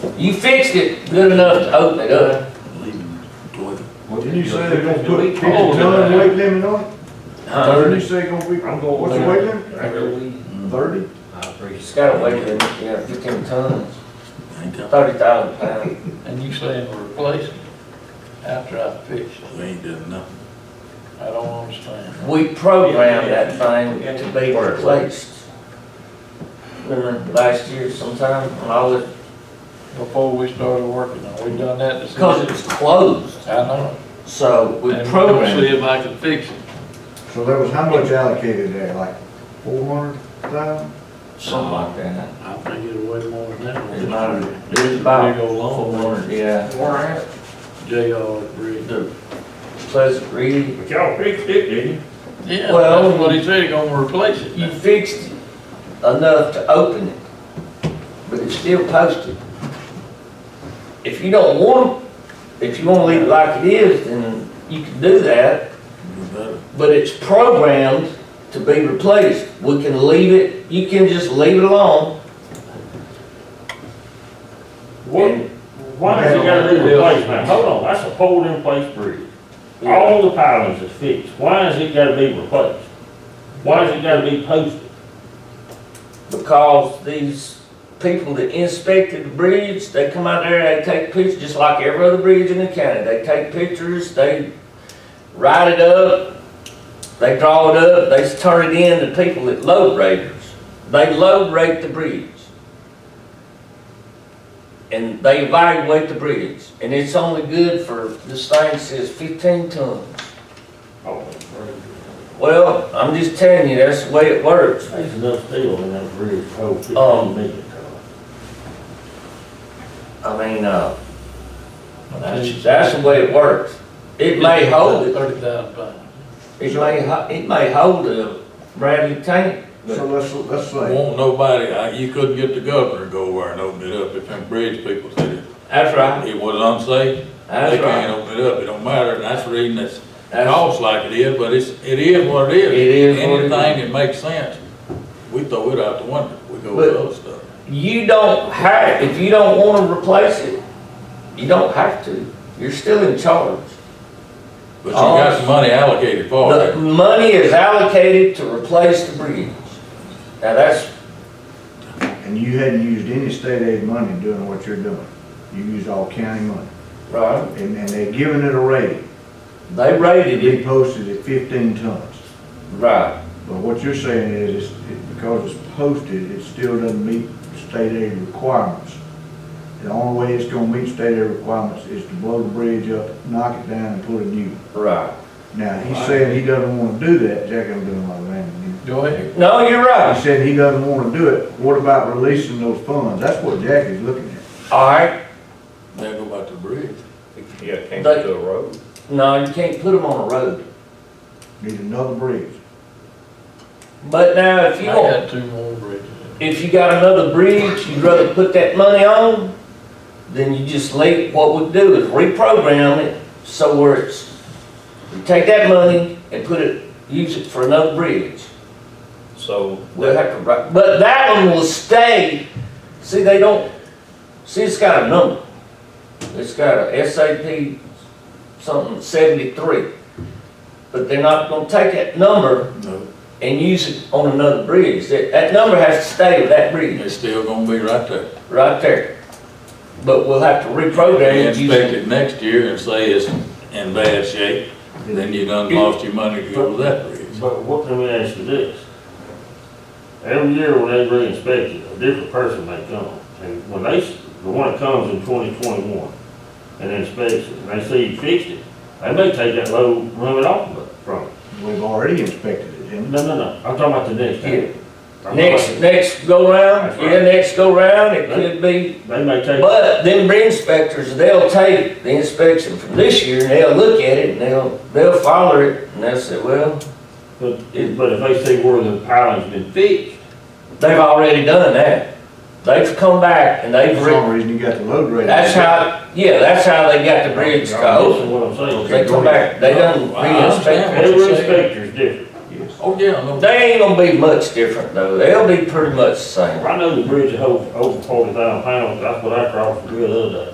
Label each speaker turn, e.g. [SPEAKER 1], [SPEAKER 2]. [SPEAKER 1] You fixed it good enough to open it up,
[SPEAKER 2] Didn't you say they're gonna put fifty
[SPEAKER 3] Oh,
[SPEAKER 2] ton
[SPEAKER 3] yeah.
[SPEAKER 2] weight limit on it?
[SPEAKER 1] huh?
[SPEAKER 2] Didn't you say gonna be,
[SPEAKER 3] I'm going
[SPEAKER 2] what's the
[SPEAKER 3] there.
[SPEAKER 2] weight limit? Thirty?
[SPEAKER 3] I
[SPEAKER 1] It's
[SPEAKER 3] appreciate
[SPEAKER 1] got a weight limit, you got fifteen tons, thirty thousand pounds.
[SPEAKER 4] And you saying replace it after I fix it?
[SPEAKER 5] We ain't done nothing.
[SPEAKER 4] I don't understand.
[SPEAKER 1] We programmed that thing to be replaced. Remember last year sometime, when all it,
[SPEAKER 4] Before we started working on, it, we done that to.
[SPEAKER 1] because it was closed,
[SPEAKER 4] I know.
[SPEAKER 1] so we
[SPEAKER 4] And
[SPEAKER 1] programmed.
[SPEAKER 4] See
[SPEAKER 1] it.
[SPEAKER 4] if I can fix it.
[SPEAKER 2] So there was how much allocated there, like four hundred thousand?
[SPEAKER 1] Something like that.
[SPEAKER 4] I think it'll weigh more than that.
[SPEAKER 1] It's about, it's about
[SPEAKER 4] Big old
[SPEAKER 1] four
[SPEAKER 4] long one.
[SPEAKER 1] hundred, yeah.
[SPEAKER 4] JR agreed.
[SPEAKER 1] The Pleasant Reed,
[SPEAKER 3] But y'all fixed it, didn't you?
[SPEAKER 4] Yeah,
[SPEAKER 1] Well-
[SPEAKER 4] that's what he said, he gonna replace it
[SPEAKER 1] you
[SPEAKER 4] now.
[SPEAKER 1] fixed it enough to open it, but it's still posted. If you don't want, if you wanna leave it like it is, then you can do that,
[SPEAKER 5] We better.
[SPEAKER 1] but it's programmed to be replaced. We can leave it, you can just leave it alone.
[SPEAKER 3] What,
[SPEAKER 1] And
[SPEAKER 3] why does it gotta be replaced now? Hold on, that's a pole in place bridge. All the pilings is fixed. Why has it gotta be replaced? Why has it gotta be posted?
[SPEAKER 1] Because these people that inspected the bridge, they come out there, they take pictures, just like every other bridge in the county. They take pictures, they write it up, they draw it up, they turn it in to people that load raters. They load rate the bridge. And they evaluate the bridge, and it's only good for, this thing says fifteen tons.
[SPEAKER 3] Oh,
[SPEAKER 1] Well, I'm just telling you, that's the way it works.
[SPEAKER 3] there's enough steel in that bridge, to hold
[SPEAKER 1] Um,
[SPEAKER 3] fifteen million tons.
[SPEAKER 1] I mean, uh, that's, that's the way it works. It may hold it,
[SPEAKER 4] Thirty thousand pounds.
[SPEAKER 1] it may, ho- it may hold a Bradley tank,
[SPEAKER 2] So
[SPEAKER 1] but
[SPEAKER 2] let's, let's say,
[SPEAKER 5] Won't nobody, I- you couldn't get the governor to go over and open it up if them bridge people said it.
[SPEAKER 1] that's right,
[SPEAKER 5] It was unsafe. They
[SPEAKER 1] that's
[SPEAKER 5] can't
[SPEAKER 1] right.
[SPEAKER 5] open it up. It don't matter. And that's the reason it's
[SPEAKER 1] That's-
[SPEAKER 5] cost like it is, but it's, it is what it is.
[SPEAKER 1] It is what it
[SPEAKER 5] Anything
[SPEAKER 1] is.
[SPEAKER 5] that makes sense, we throw it out the window. We go with
[SPEAKER 1] But-
[SPEAKER 5] other stuff.
[SPEAKER 1] You don't have, if you don't wanna replace it, you don't have to. You're still in charge.
[SPEAKER 5] But you got some money allocated for
[SPEAKER 1] The
[SPEAKER 5] it.
[SPEAKER 1] money is allocated to replace the bridge. Now, that's,
[SPEAKER 2] and you hadn't used any state aid money doing what you're doing. You used all county money,
[SPEAKER 1] right,
[SPEAKER 2] and, and they're giving it a rating.
[SPEAKER 1] they rated
[SPEAKER 2] They
[SPEAKER 1] it,
[SPEAKER 2] posted at fifteen tons.
[SPEAKER 1] right,
[SPEAKER 2] But what you're saying is, it's- it- because it's posted, it still doesn't meet state aid requirements. The only way it's gonna meet state aid requirements is to blow the bridge up, knock it down, and put a new. one.
[SPEAKER 1] right.
[SPEAKER 2] Now, he's saying he doesn't wanna do that, Jack, I'm doing my man.
[SPEAKER 4] Go ahead.
[SPEAKER 1] No, you're right.
[SPEAKER 2] He said he doesn't wanna do it, what about releasing those funds? That's what Jack is looking at.
[SPEAKER 1] All right,
[SPEAKER 5] They go back to the bridge.
[SPEAKER 6] Yeah, can't
[SPEAKER 1] They-
[SPEAKER 6] do a road.
[SPEAKER 1] no, you can't put them on a road.
[SPEAKER 2] Need another bridge.
[SPEAKER 1] But now, if
[SPEAKER 4] I
[SPEAKER 1] you want,
[SPEAKER 4] got two more bridges.
[SPEAKER 1] if you got another bridge you'd rather put that money on, then you just leave, what we do is reprogram it so where it's, you take that money and put it, use it for another bridge.
[SPEAKER 6] So
[SPEAKER 1] We'll have to, write- but that one will stay, see, they don't, see, it's got a number. It's got a SAP something seventy-three. But they're not gonna take that number
[SPEAKER 5] No,
[SPEAKER 1] and use it on another bridge. That, that number has to stay with that bridge
[SPEAKER 5] it's still gonna be right there.
[SPEAKER 1] right there. But we'll have to
[SPEAKER 5] They
[SPEAKER 1] reprogram it.
[SPEAKER 5] inspect
[SPEAKER 1] using-
[SPEAKER 5] it next year and say it's in bad shape, then you done lost your money to go to that bridge.
[SPEAKER 3] But what let me ask you this? Every year when they re-inspect it, a different person may come. And when they, s- the one that comes in twenty twenty-one and inspects it, and they see you fixed it, they may take that load limit off of it from it.
[SPEAKER 2] We've already inspected it, didn't
[SPEAKER 3] No, no, no, I'm talking about the next year. I'm
[SPEAKER 1] Next,
[SPEAKER 3] talking
[SPEAKER 1] next go round,
[SPEAKER 3] That's
[SPEAKER 1] yeah,
[SPEAKER 3] right.
[SPEAKER 1] next go round, it could be,
[SPEAKER 3] about- They may take,
[SPEAKER 1] but then bridge inspectors, they'll take the inspection from this year, and they'll look at it, and they'll, they'll follow it, and they'll say, well,
[SPEAKER 3] but, it- but if they see where the piling's been fixed,
[SPEAKER 1] they've already done that. They've come back and
[SPEAKER 2] they?
[SPEAKER 1] they've,
[SPEAKER 2] For
[SPEAKER 1] re-
[SPEAKER 2] some reason, you got the load rate.
[SPEAKER 1] that's how, yeah, that's how they got the bridge to
[SPEAKER 3] Y'all
[SPEAKER 1] open.
[SPEAKER 3] listen to what I'm saying.
[SPEAKER 1] They come back, they done
[SPEAKER 5] I understand
[SPEAKER 1] re-inspect.
[SPEAKER 5] what
[SPEAKER 3] Every
[SPEAKER 5] you're saying.
[SPEAKER 3] inspector's different.
[SPEAKER 2] Yes.
[SPEAKER 5] Oh, yeah, no,
[SPEAKER 1] They ain't gonna be much different though, they'll be pretty much the same.
[SPEAKER 3] I know the bridge is over, over forty thousand pounds, that's what I crossed the bridge the other day.